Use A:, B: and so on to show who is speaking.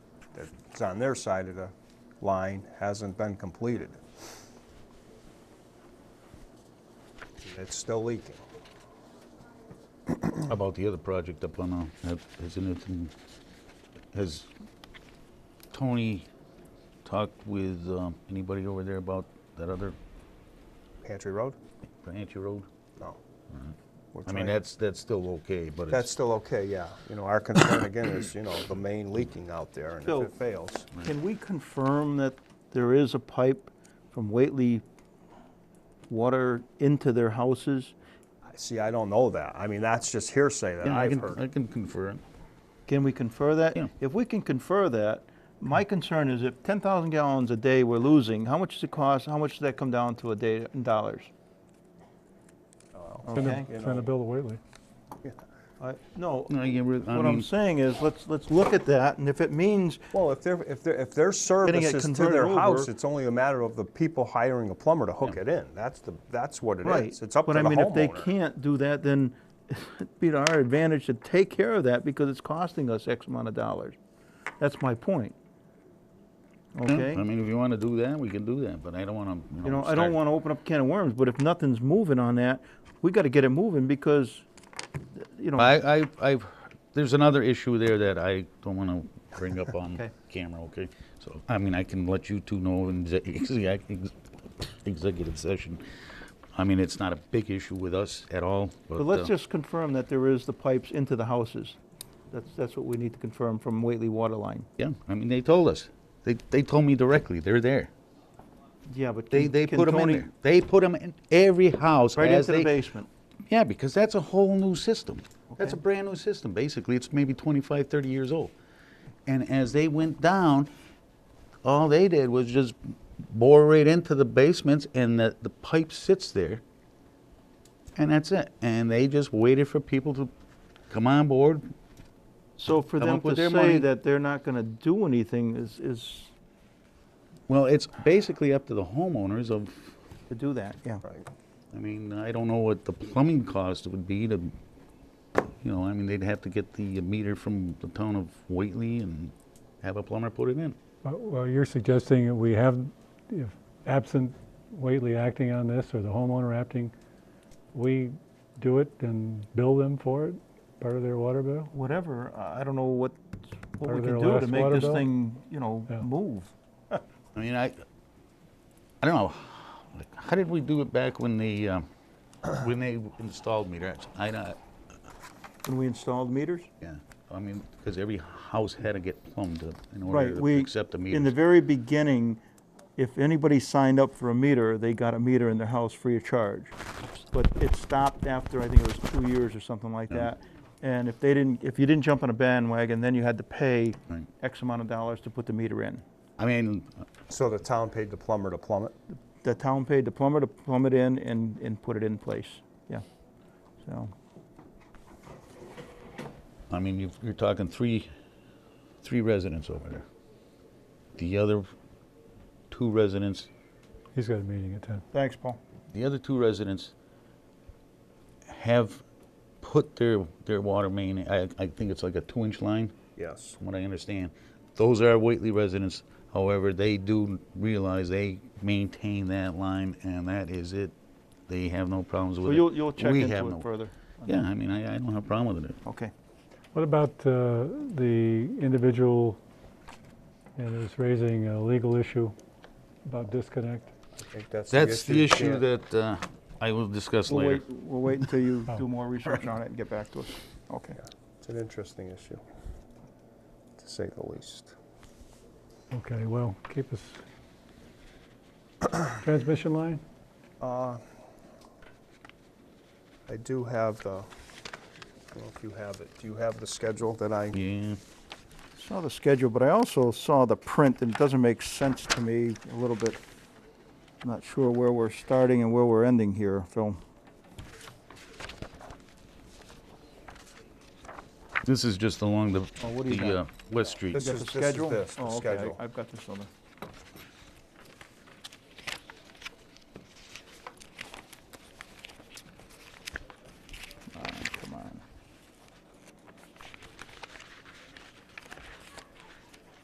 A: project on their side of the line hasn't been completed. It's still leaking.
B: How About the other project up on, uh, that- hasn't it, been- has Tony talked with um, anybody over there about that other
A: Pantry Road?
B: Ranchi Road?
A: No.
C: Mm-hmm.
A: We're
B: I mean,
A: trying-
B: that's, that's still okay, but
A: That's
B: it's,
A: still okay, yeah. You know, our concern again is, you know, the main leaking out there and
C: So-
A: if it fails.
C: Can we confirm that there is a pipe from Whately water into their houses?
A: See, I don't know that. I mean, that's just hearsay that
B: Yeah, I
A: I've
B: can,
A: heard.
B: I can confirm.
C: Can we confer that?
B: Yeah.
C: If we can confer that, my concern is if 10,000 gallons a day we're losing, how much does it cost? How much does that come down to a day in dollars?
D: Send
C: Okay?
D: a, send a bill to Whately.
C: I- No,
B: No, you re- I
C: what I'm
B: mean,
C: saying is, let's, let's look at that, and if it means
A: Well, if they're, if they're, if their
C: it
A: service is to
C: converted
A: their house,
C: over-
A: it's only a matter of the people hiring a plumber to hook it in. That's the, that's what it
C: Right.
A: is. It's up to
C: but
A: the
C: I mean, if they
A: homeowner.
C: can't do that, then it'd be to our advantage to take care of that because it's costing us X amount of dollars. That's my point.
B: yeah,
C: Okay?
B: I mean, if you want to do that, we can do that, but I don't want to,
C: You know, I don't want to open up a can of worms, but if nothing's moving on that, we got to get it moving because, you know.
B: I, I, I've, there's another issue there that I don't want to bring up on
C: Okay.
B: camera, okay? So, I mean, I can let you two know in exec- ex- executive session. I mean, it's not a big issue with us at all, but.
C: But let's
B: uh,
C: just confirm that there is the pipes into the houses. That's, that's what we need to confirm from Whately Waterline.
B: Yeah, I mean, they told us. They, they told me directly, they're there.
C: Yeah, but
B: They,
C: can-
B: they
C: can
B: put them in
C: Tony-
B: there. They put them in every house
C: Right
B: as
C: into the
B: they.
C: basement.
B: Yeah, because that's a whole new system. That's a
C: Okay.
B: brand new system, basically. It's maybe 25, 30 years old. And as they went down, all they did was just bore right into the basements and the, the pipe sits there. And that's it. And they just waited for people to come on board.
C: So for
B: Come
C: them
B: up with
C: to
B: their money.
C: say that they're not going to do anything is, is
B: Well, it's basically up to the homeowners of,
C: to do that, yeah.
A: Right.
B: I mean, I don't know what the plumbing cost would be to, you know, I mean, they'd have to get the meter from the town of Whately and have a plumber put it in.
D: Well- Well, you're suggesting that we have, if absent Whately acting on this or the homeowner acting, we do it and bill them for it, part of their water bill?
C: Whatever, I I don't know what, what
D: Part
C: we can
D: of their
C: do to
D: last
C: make
D: water
C: this
D: bill?
C: thing, you know,
D: Yeah.
C: move.
B: I mean, I, I don't know, like, how did we do it back when the, um, when they installed meters? I don't,
C: When we installed meters?
B: yeah, I mean, because every house had to get plumbed up in order
C: Right,
B: to
C: we,
B: accept the
C: in the
B: meters.
C: very beginning, if anybody signed up for a meter, they got a meter in their house free of charge. But it stopped after, I think it was two years or something like that. And if they didn't, if you didn't jump on a bandwagon, then you had to pay
B: Right.
C: X amount of dollars to put the meter in.
B: I mean,
A: So the town paid the plumber to plumb it?
C: the town paid the plumber to plumb it in and, and put it in place, yeah. So,
B: I mean, you've- you're talking three, three residents over there. The other two residents
D: He's got a meeting at ten.
C: thanks, Paul.
B: the other two residents have put their, their water main, I, I think it's like a two-inch line,
A: Yes.
B: from what I understand. Those are Whately residents, however, they do realize they maintain that line, and that is it. They have no problems
C: So
B: with it.
C: you'll, you'll check
B: We have
C: into
B: no-
C: it further?
B: Yeah, I mean, I, I don't have a problem with it.
C: Okay.
D: What about uh, the individual, and it's raising a legal issue about disconnect?
A: I think that's the issue.
B: That's the issue
A: yeah.
B: that uh, I will discuss
C: We'll
B: later.
C: wait, we'll wait until you
D: Oh.
C: do more research on it and get back to us. Okay.
A: It's an interesting issue, to say the least.
D: Okay, well, keep us. Transmission line?
A: Uh, I do have the, I don't know if you have it, do you have the schedule that I?
B: Yeah,
C: Saw the schedule, but I also saw the print, and it doesn't make sense to me a little bit. I'm Not sure where we're starting and where we're ending here, Phil.
B: this is just along the,
C: Oh, what do you
B: the
C: got?
B: uh, West Street.
A: This
C: You got
A: is-
C: the
A: this is
C: schedule?
B: uh,
A: this, the
C: Oh, okay, I-
A: schedule.
C: I've got this on the.